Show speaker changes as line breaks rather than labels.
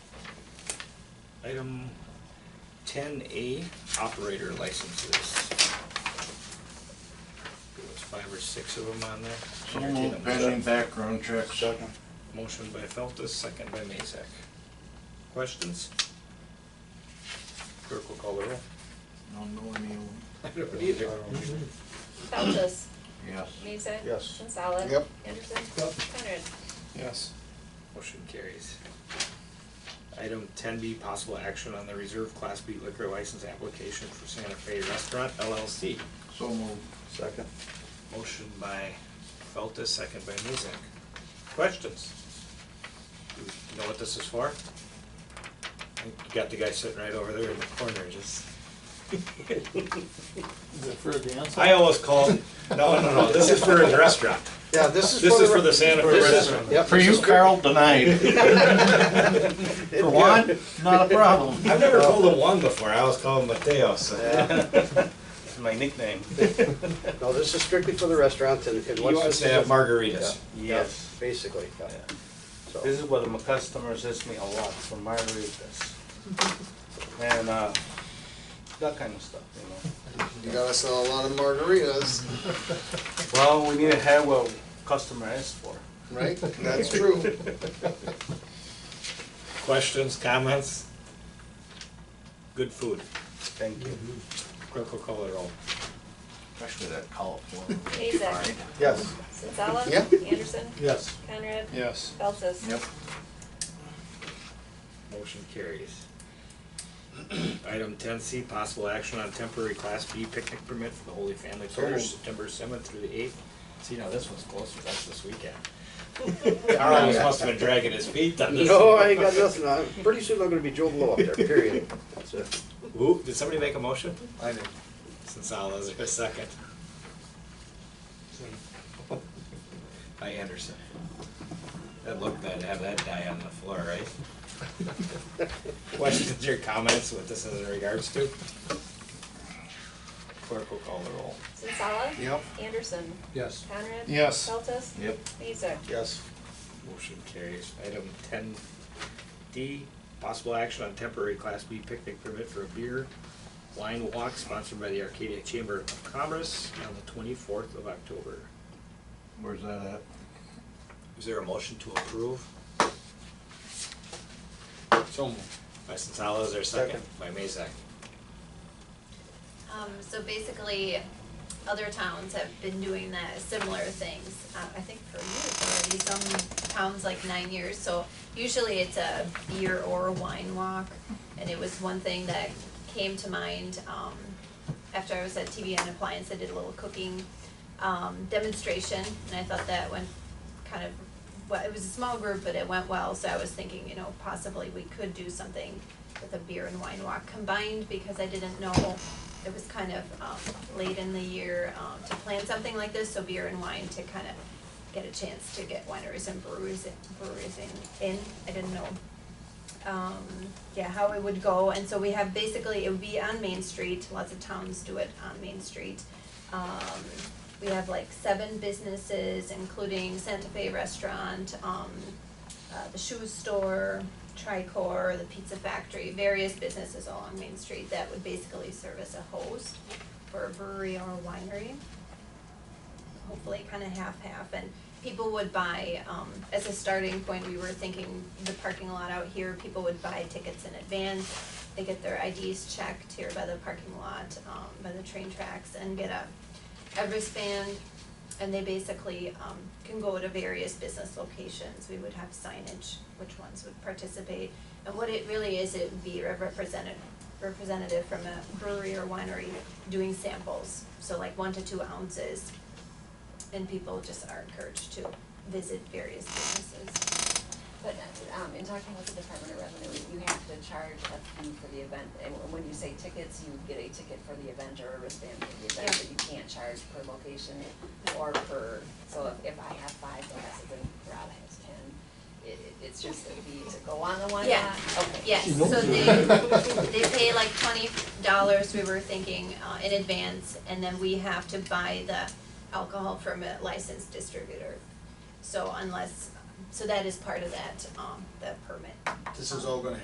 Item ten A, operator licenses. There was five or six of them on there.
So
Entertain a
moved,
motion.
pending background checks.
Second.
Motion by Feltus, second by Mazak. Questions? Clerk will call the roll.
I don't know any of them.
I don't either.
Feltes,
Yes.
Mezek.
Yes.
Sensala.
Yep.
Anderson.
Yep.
Conrad.
Yes.
Motion carries. Item ten B, possible action on the reserve class B liquor license application for Santa Fe Restaurant LLC.
So moved.
Second.
Motion by Feltus, second by Mezak. Questions? Do you know what this is for? I think You got the guy sitting right over there in the corner, just.
Is it for a dance?
I always call, no, no, no, this is for a restaurant.
Yeah, this is.
This is for the Santa Fe
This is-
restaurant.
Yep.
For you, Carl, denied. For one, not a problem.
I've never called him Juan before, I always call him Mateos.
Yeah.
It's my nickname.
No, this is strictly for the restaurant and, and
He
once
wants
this
to
is.
have margaritas.
Yes.
Basically, yeah, so.
This is what my customers ask me a lot for margaritas. And uh, that kind of stuff, you know.
You gotta sell a lot of margaritas,
Well, we need to have what customer asks for.
right? That's true.
Questions, comments? Good food.
Thank you.
Clerk will call it roll.
Especially that California.
Mezek.
Yes.
Sensala.
Yep.
Anderson.
Yes.
Conrad.
Yes.
Feltes.
Yep.
Motion carries. Item ten C, possible action on temporary class B picnic permit for the Holy Family Parish, September seventh through the eighth. See, now this one's closer, that's this weekend. Carlos must have been dragging his feet on this.
No, I ain't got nothing, I'm, pretty soon I'm gonna be Joe Blow up there, period. That's it.
Ooh, did somebody make a motion? I did. Sensala, is there a second? By Anderson. That looked bad, to have that die on the floor, right? Questions or comments, what this is in regards to? Clerk will call the roll.
Sensala.
Yep.
Anderson.
Yes.
Conrad.
Yes.
Feltes.
Yep.
Mezek.
Yes.
Motion carries. Item ten D, possible action on temporary Class B picnic permit for a beer wine walk sponsored by the Arcadia Chamber of Commerce on the twenty-fourth of October.
Where's that at?
Is there a motion to approve? So By Sensala, is there a second? By Mazak.
Um, so basically, other towns have been doing that, similar things, uh, I think for years already, some towns like nine years, so usually it's a beer or a wine walk, and it was one thing that came to mind, um, after I was at TBN Appliance, I did a little cooking, um, demonstration, and I thought that went kind of, well, it was a small group, but it went well, so I was thinking, you know, possibly we could do something with a beer and wine walk combined, because I didn't know, it was kind of, um, late in the year, um, to plan something like this, so beer and wine to kind of get a chance to get wineries and breweries, breweries in, in, I didn't know um, yeah, how it would go, and so we have basically, it would be on Main Street, lots of towns do it on Main Street. Um, we have like seven businesses, including Santa Fe Restaurant, um, uh, the shoe store, Tricor, the Pizza Factory, various businesses all on Main Street that would basically serve as a host for a brewery or a winery hopefully kind of half-half, and people would buy, um, as a starting point, we were thinking the parking lot out here, people would buy tickets in advance, they get their IDs checked here by the parking lot, um, by the train tracks, and get a Everest band, and they basically, um, can go to various business locations, we would have signage, which ones would participate, and what it really is, it would be a representative, representative from a brewery or winery doing samples, so like one to two ounces, and people just are encouraged to visit various businesses.
But um, in talking with the Department of Revenue, you have to charge a fee for the event, and when you say tickets, you get a ticket for the event or a wristband for the event,
Yeah.
but you can't charge per location or per, so if- if I have five glasses and Rob has ten, it, it- it's just a fee to go on the one
Yeah.
lot? Okay.
Yes, so they, they pay like twenty dollars, we were thinking, uh, in advance, and then we have to buy the alcohol from a licensed distributor. So unless, so that is part of that, um, the permit.
This is all gonna